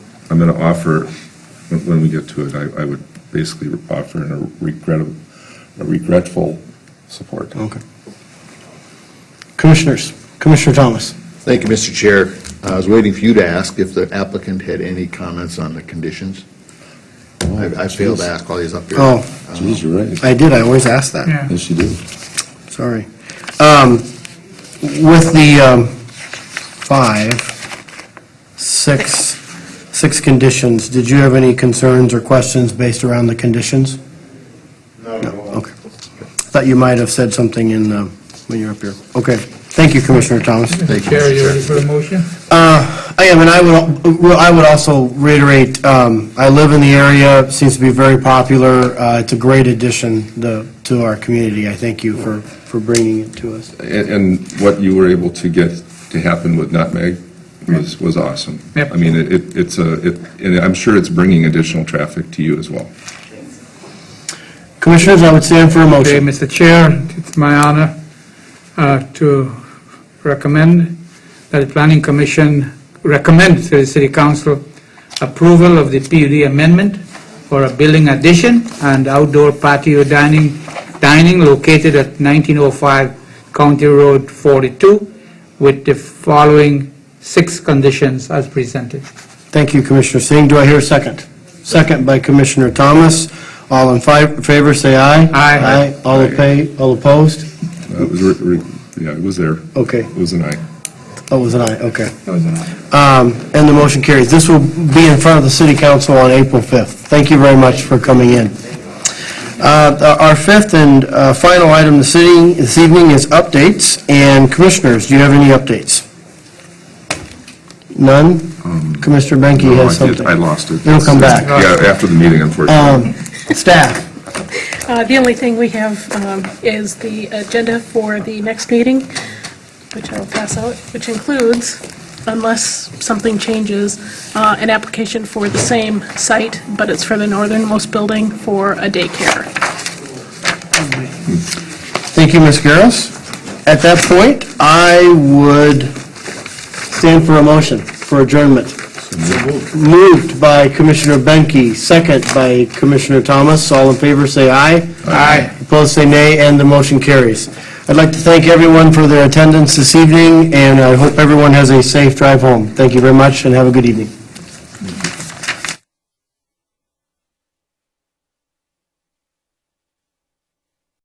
I'm going to offer, when when we get to it, I, I would basically offer a regrettable, a regretful support. Okay. Commissioners, Commissioner Thomas. Thank you, Mr. Chair. I was waiting for you to ask if the applicant had any comments on the conditions. I I failed to ask all these up here. Um, Oh, Geez, you're right. I did, I always ask that. Yeah. Yes, you do. Sorry. Um, With the um, five, six, six conditions, did you have any concerns or questions based around the conditions? No. Okay. Thought you might have said something in, um, when you were up here. Okay. Thank you, Commissioner Thomas. Thank you, Chair, Mr. you ready Chair. for the motion? Uh, I am, and I would, well, I would also reiterate, um, I live in the area, seems to be very popular. Uh, It's a great addition the- to our community. I thank you for, for bringing it to us. And, and what you were able to get to happen with Nutmeg was, was awesome. Yep. I mean, it- it, it's a, it, and I'm sure it's bringing additional traffic to you as well. Commissioners, I would stand for a Okay, motion. Mr. Chair, it's my honor uh, to recommend that the Planning Commission recommend to the City Council approval of the PUD amendment for a building addition and outdoor patio dining, dining located at 1905 County Road 42 with the following six conditions as presented. Thank you, Commissioner Singh. Do I hear a second? Second by Commissioner Thomas. All in fi- favor, say aye. Aye. All oppa- all opposed? Uh, It was, re- re- yeah, it was there. Okay, It was an aye. that Oh, was an aye, okay. That was an aye. Um, And the motion carries. This will be in front of the city council on April 5th. Thank you very much for coming in. Uh, Our fifth and uh, final item this evening- this evening is updates. And commissioners, do you have any updates? None? Commissioner Benke Um, No, I did- has something. I lost it. It'll come back. Yeah, after the meeting, unfortunately. Um, Staff? Uh, The only thing we have um, is the agenda for the next meeting, which I'll pass out, which includes, unless something changes, uh, an application for the same site, but it's for the northernmost building for a daycare. Thank you, Ms. Garros. At that point, I would stand for a motion for adjournment. Moved by Commissioner Benke, second by Commissioner Thomas. All in favor, say aye. Aye. Opposed, say nay, and the motion carries. I'd like to thank everyone for their attendance this evening, and I hope everyone has a safe drive home. Thank you very much, and have a good evening.